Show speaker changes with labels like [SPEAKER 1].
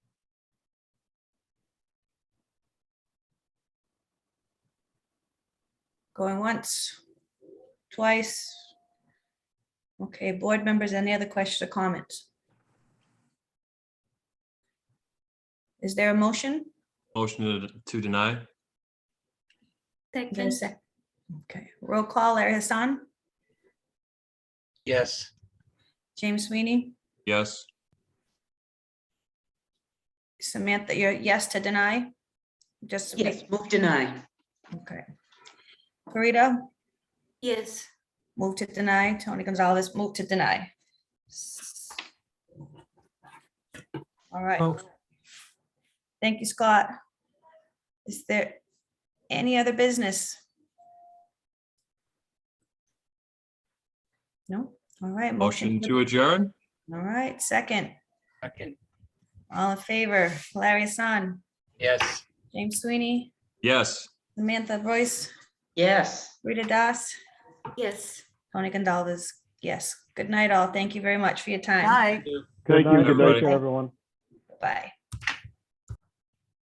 [SPEAKER 1] Going once, twice. Okay, board members, any other questions or comments? Is there a motion?
[SPEAKER 2] Motion to- to deny?
[SPEAKER 1] Is there a sec- Okay, roll call, Larry Hassan,
[SPEAKER 3] Yes,
[SPEAKER 1] James Sweeney,
[SPEAKER 2] Yes.
[SPEAKER 1] Samantha, you're yes to deny? Just.
[SPEAKER 4] Yes, move deny.
[SPEAKER 1] Okay. Rita,
[SPEAKER 5] Yes,
[SPEAKER 1] move to deny. Tony Gonzalez, move to deny. All right.
[SPEAKER 2] Oh.
[SPEAKER 1] Thank you, Scott. Is there any other business? No? All right.
[SPEAKER 2] Motion to adjourn?
[SPEAKER 1] All right, second.
[SPEAKER 3] second,
[SPEAKER 1] All in favor, Larry Hassan,
[SPEAKER 3] yes.
[SPEAKER 1] James Sweeney,
[SPEAKER 2] Yes.
[SPEAKER 1] Samantha Boyce,
[SPEAKER 4] Yes.
[SPEAKER 1] Rita Das,
[SPEAKER 5] yes.
[SPEAKER 1] Tony Gonzalez. Yes. Good night all. Thank you very much for your time.
[SPEAKER 4] Bye.
[SPEAKER 3] Thank you.
[SPEAKER 6] Thank
[SPEAKER 2] night,
[SPEAKER 6] you. Good night to
[SPEAKER 2] everybody.
[SPEAKER 6] everyone.
[SPEAKER 1] Bye.